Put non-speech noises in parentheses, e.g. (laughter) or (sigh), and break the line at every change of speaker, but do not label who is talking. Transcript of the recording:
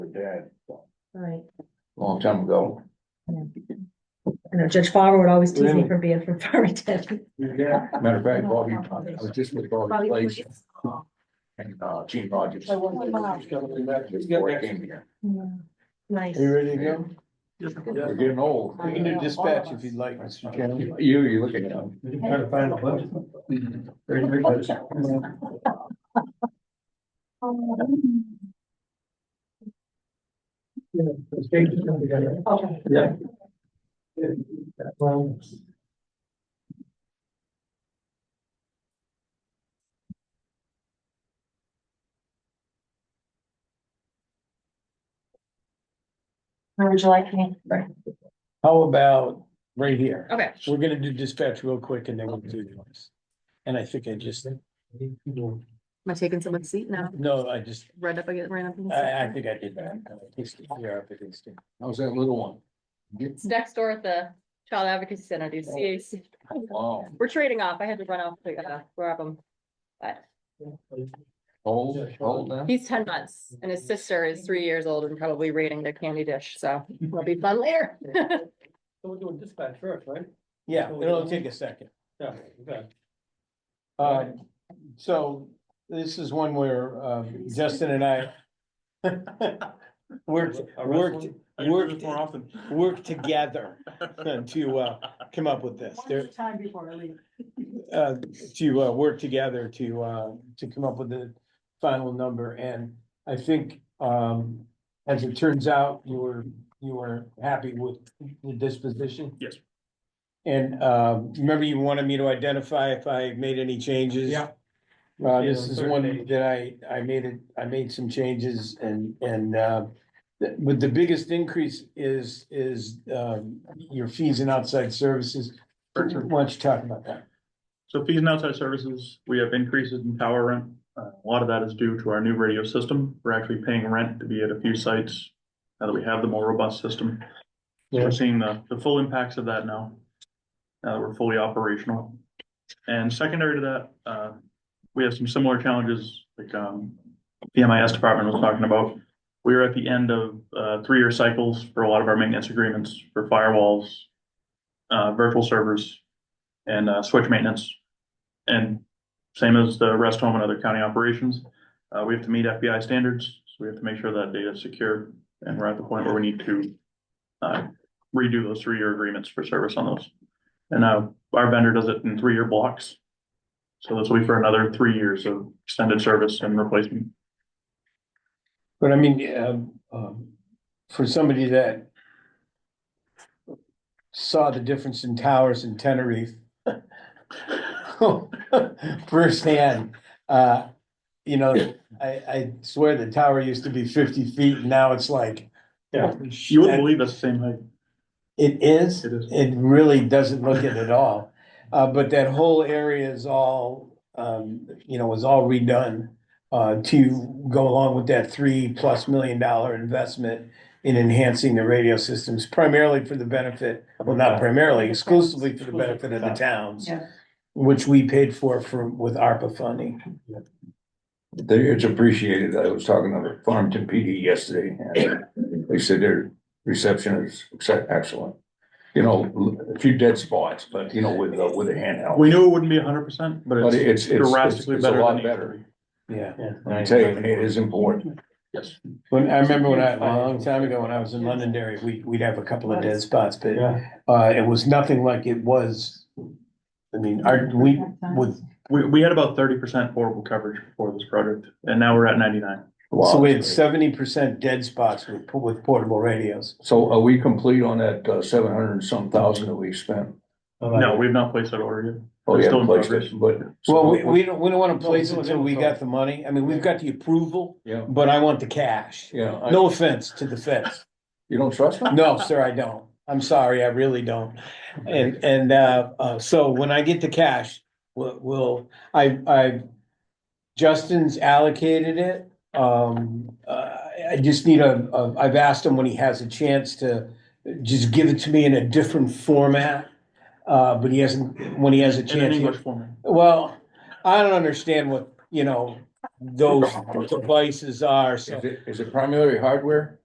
dad,
Right,
long time ago.
I know Judge Farber would always tease me
Really?
for being from Farmington.
Matter of fact, Bobby, I was just with Bobby Place and uh, Gene Rogers.
I wonder if he's
Before I came here.
Nice.
You ready to go?
We're getting old.
You can do dispatch if you'd like, Mr. Chairman.
You, you look at them.
Trying to find a budget.
Mm-hmm. Um, Okay.
Yeah.
Or would you like me?
How about right here?
Okay.
We're gonna do dispatch real quick and then we'll do yours. And I think I just, no,
Am I taking someone's seat now?
I just,
Right up, I get ran up. against
I, I
it.
think I did that. I think it's here up against it.
How's that little one?
It's next door at the Child Advocacy Center, do CAC.
Wow,
We're trading off. I had to run off to uh, grab him. But
old, old now?
he's ten months and his sister is three years old and probably raiding their candy dish, so it'll be fun later.
So we're doing dispatch first, right?
Yeah, it'll take a second.
Yeah, okay.
Uh, so this is one where, um, Justin and I (laughs) worked,
I
worked,
wrestle- I do
worked,
this more often.
worked
(laughs)
together to, uh, come up with this. There,
Time before I leave.
uh, to, uh, work together to, uh, to come up with the final number, and I think, um, as it turns out, you were, you were happy with the disposition?
Yes.
And, um, remember you wanted me to identify if I made any changes?
Yeah.
Uh, this is
Yeah,
one
thirty.
that I, I made it, I made some changes and, and, uh, the- but the biggest increase is, is, um, your fees and outside services. Why don't you talk about that?
So fees and outside services, we have increases in tower rent. Uh, A lot of that is due to our new radio system. We're actually paying rent to be at a few sites now that we have the more robust system. So
Yeah.
We're seeing the, the full impacts of that now, now that we're fully operational. And secondary to that, uh, we have some similar challenges, like, um, the MIS department was talking about. We are at the end of, uh, three-year cycles for a lot of our maintenance agreements for firewalls, uh, virtual servers, and, uh, switch maintenance. And same as the rest home and other county operations, uh, we have to meet FBI standards, so we have to make sure that data is secure. And we're at the point where we need to, uh, redo those three-year agreements for service on those. And, uh, our vendor does it in three-year blocks. So this will be for another three years of extended service and replacement.
But I mean, um, um, for somebody that saw the difference in towers in Tenerife (laughs) firsthand, uh, you know, I, I swear the tower used to be fifty feet, and now it's like.
Yeah.
holy
You wouldn't
shit.
believe that's the same height.
It is,
It is.
it really doesn't look it at all, uh, but that whole area is all, um, you know, was all redone. Uh, to go along with that three plus million dollar investment in enhancing the radio systems primarily for the benefit. Well, not primarily, exclusively for the benefit of the towns.
Yeah.
Which we paid for from, with ARPA funding.
They, it's appreciated. I was talking to Farmington PD yesterday and they said their reception is ex- excellent. You know, a few dead spots, but you know, with, a- with a handheld.
We knew it wouldn't be hundred percent, but
But
it's
it's, it's, it's
drastically
it's a
better than
lot
it used to be.
better.
Yeah.
I tell you, it is important.
Yes.
When, I remember when I, a long time ago, when I was in Londonderry, we, we'd have a couple of dead spots, but
Yeah.
Uh, it was nothing like it was. I mean, our, we, with,
We, we had about thirty percent portable coverage before this project, and now we're at ninety-nine.
so we
Wow.
had seventy percent dead spots with, with portable radios.
So are we complete on that uh, seven hundred and some thousand that we spent?
No, we've not placed that order yet.
Oh,
It's
yeah,
still in
placed
progress.
it, but.
Well, we, we don't, we don't wanna
No,
place it
we're
until we
doing
got the money. I mean, we've got the approval,
Yeah,
but I want the cash.
yeah. I-
No offense to the feds.
You don't trust them?
No, sir, I don't. I'm sorry, I really don't. And, and, uh, uh, so when I get the cash, we'll, we'll, I, I, Justin's allocated it. Um, uh, I just need a, a, I've asked him when he has a chance to just give it to me in a different format. Uh, but he hasn't, when he has a
In an
chance. he-
English format.
Well, I don't understand what, you know, those devices are,
Is
so.
it, is it primarily hardware?